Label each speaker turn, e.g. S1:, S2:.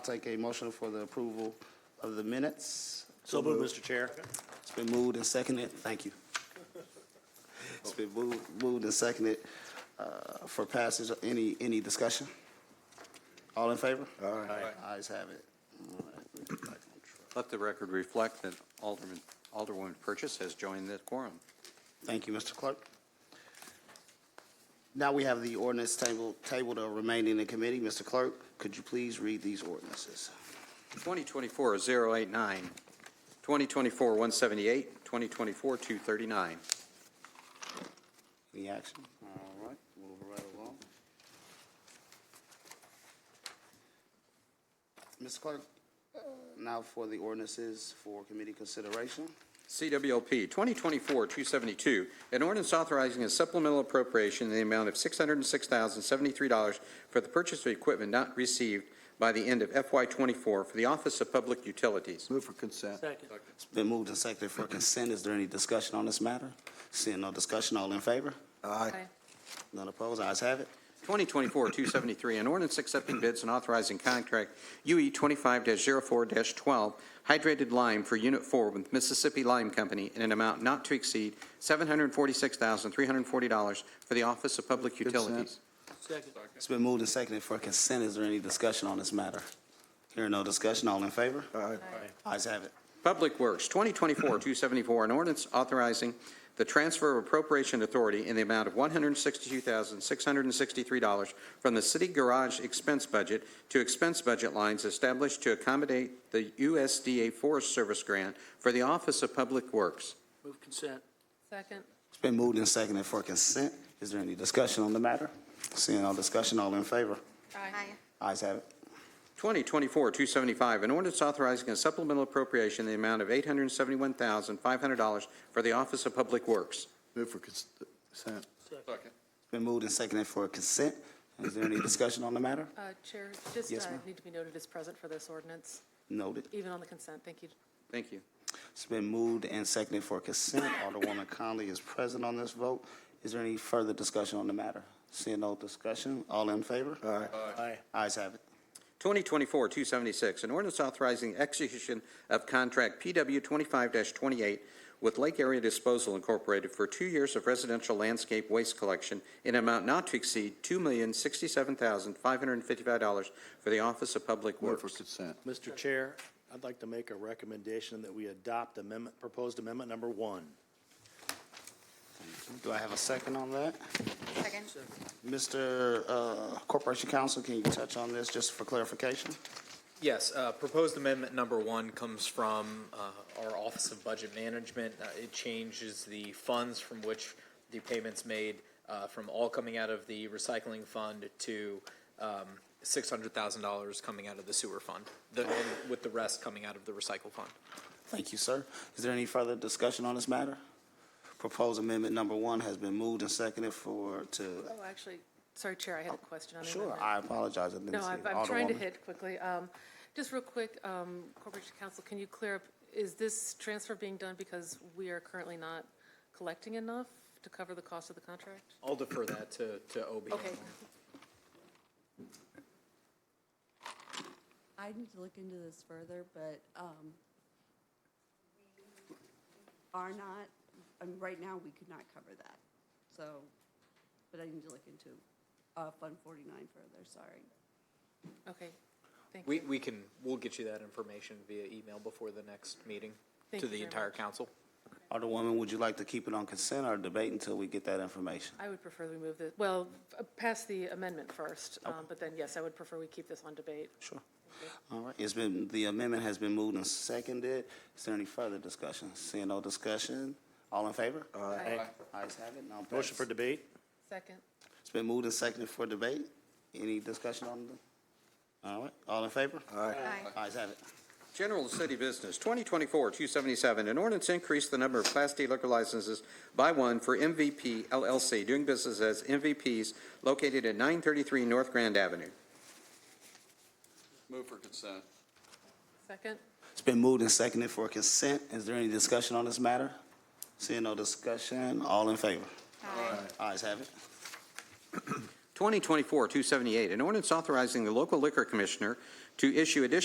S1: Take a motion for the approval of the minutes.
S2: So moved, Mr. Chair.
S1: It's been moved and seconded. Thank you. It's been moved, moved and seconded, uh, for passage. Any, any discussion? All in favor?
S2: Aye.
S1: Ayes have it. All right, we're back on track.
S3: Let the record reflect that Alderman, Alderwoman Purchase has joined the quorum.
S1: Thank you, Mr. Clerk. Now we have the ordinance table, tabled or remaining in committee. Mr. Clerk, could you please read these ordinances?
S3: 2024-089, 2024-178, 2024-239.
S1: Any action? All right, move right along. Ms. Clerk, uh, now for the ordinances for committee consideration.
S3: CWLP 2024-272, an ordinance authorizing a supplemental appropriation in the amount of $606,073 for the purchase of equipment not received by the end of FY24 for the Office of Public Utilities.
S4: Move for consent.
S2: Second.
S1: It's been moved and seconded for consent. Is there any discussion on this matter? Seeing no discussion, all in favor?
S4: Aye.
S1: None opposed, ayes have it.
S3: 2024-273, an ordinance accepting bids and authorizing contract E UE 25-04-12 hydrated lime for Unit 4 with Mississippi Lime Company in an amount not to exceed $746,340 for the Office of Public Utilities.
S2: Second.
S1: It's been moved and seconded for consent. Is there any discussion on this matter? Hearing no discussion, all in favor?
S4: Aye.
S1: Ayes have it.
S3: Public Works, 2024-274, an ordinance authorizing the transfer of appropriation authority in the amount of $162,663 from the city garage expense budget to expense budget lines established to accommodate the USDA Forest Service grant for the Office of Public Works.
S2: Move consent.
S5: Second.
S1: It's been moved and seconded for consent. Is there any discussion on the matter? Seeing no discussion, all in favor?
S5: Aye.
S1: Ayes have it.
S3: 2024-275, an ordinance authorizing a supplemental appropriation in the amount of $871,500 for the Office of Public Works.
S4: Move for uh, consent.
S1: Been moved and seconded for consent. Is there any discussion on the matter?
S5: Uh, Chair, just
S1: Yes,
S5: uh,
S1: ma'am.
S5: need to be noted as present for this ordinance,
S1: Noted.
S5: even on the consent. Thank you.
S3: Thank you.
S1: It's been moved and seconded for consent. Alderwoman Conley is present on this vote. Is there any further discussion on the matter? Seeing no discussion, all in favor?
S4: Aye.
S2: Aye.
S1: Ayes have it.
S3: 2024-276, an ordinance authorizing execution of contract PW 25-28 with Lake Area Disposal Incorporated for two years of residential landscape waste collection in an amount not to exceed $2,067,555 for the Office of Public
S4: Move for
S3: Works.
S4: consent.
S6: Mr. Chair, I'd like to make a recommendation that we adopt amendment, proposed amendment number one.
S1: Do I have a second on that?
S7: Second.
S1: Mr. uh, Corporation Counsel, can you touch on this just for clarification?
S8: Yes, uh, proposed amendment number one comes from uh, our Office of Budget Management. Uh, It changes the funds from which the payments made uh, from all coming out of the recycling fund to um, $600,000 coming out of the sewer fund, the- and with the rest coming out of the recycle fund.
S1: Thank you, sir. Is there any further discussion on this matter? Proposed amendment number one has been moved and seconded for, to,
S5: Oh, actually, sorry, Chair, I had a question on the
S1: sure,
S5: amendment.
S1: I apologize. I didn't
S5: No,
S1: see
S5: I'm,
S1: it.
S5: I'm trying to
S1: Alderwoman.
S5: hit quickly. Um, Just real quick, um, Corporation Counsel, can you clear up, is this transfer being done because we are currently not collecting enough to cover the cost of the contract?
S1: Oh.
S8: I'll defer that to to OB.
S5: Okay.
S7: I need to look into this further, but um, we are not, um, right now, we could not cover that. So, but I need to look into uh, Fund 49 further, sorry.
S5: Okay, thank
S8: We
S5: you.
S8: we can, we'll get you that information via email before the next meeting
S5: Thank
S8: to
S5: you
S8: the
S5: very
S8: entire
S5: much.
S8: council.
S1: Alderwoman, would you like to keep it on consent or debate until we get that information?
S5: I would prefer we move the, well, uh, pass the amendment first, um, but then, yes, I would prefer we keep this on debate.
S1: Sure. All right, it's been, the amendment has been moved and seconded. Is there any further discussion? Seeing no discussion, all in favor?
S5: Aye.
S1: Ayes have it, now
S6: Motion for
S1: passed.
S6: debate?
S5: Second.
S1: It's been moved and seconded for debate. Any discussion on the, all right, all in favor?
S4: Aye.
S1: Ayes have it.
S3: General City Business, 2024-277, an ordinance increase the number of Class D liquor licenses by one for MVP LLC, doing business as MVPs, located at 933 North Grand Avenue.
S4: Move for consent.
S5: Second?
S1: It's been moved and seconded for consent. Is there any discussion on this matter? Seeing no discussion, all in favor? Ayes have it.
S3: 2024-278, an ordinance authorizing the local liquor commissioner to issue additional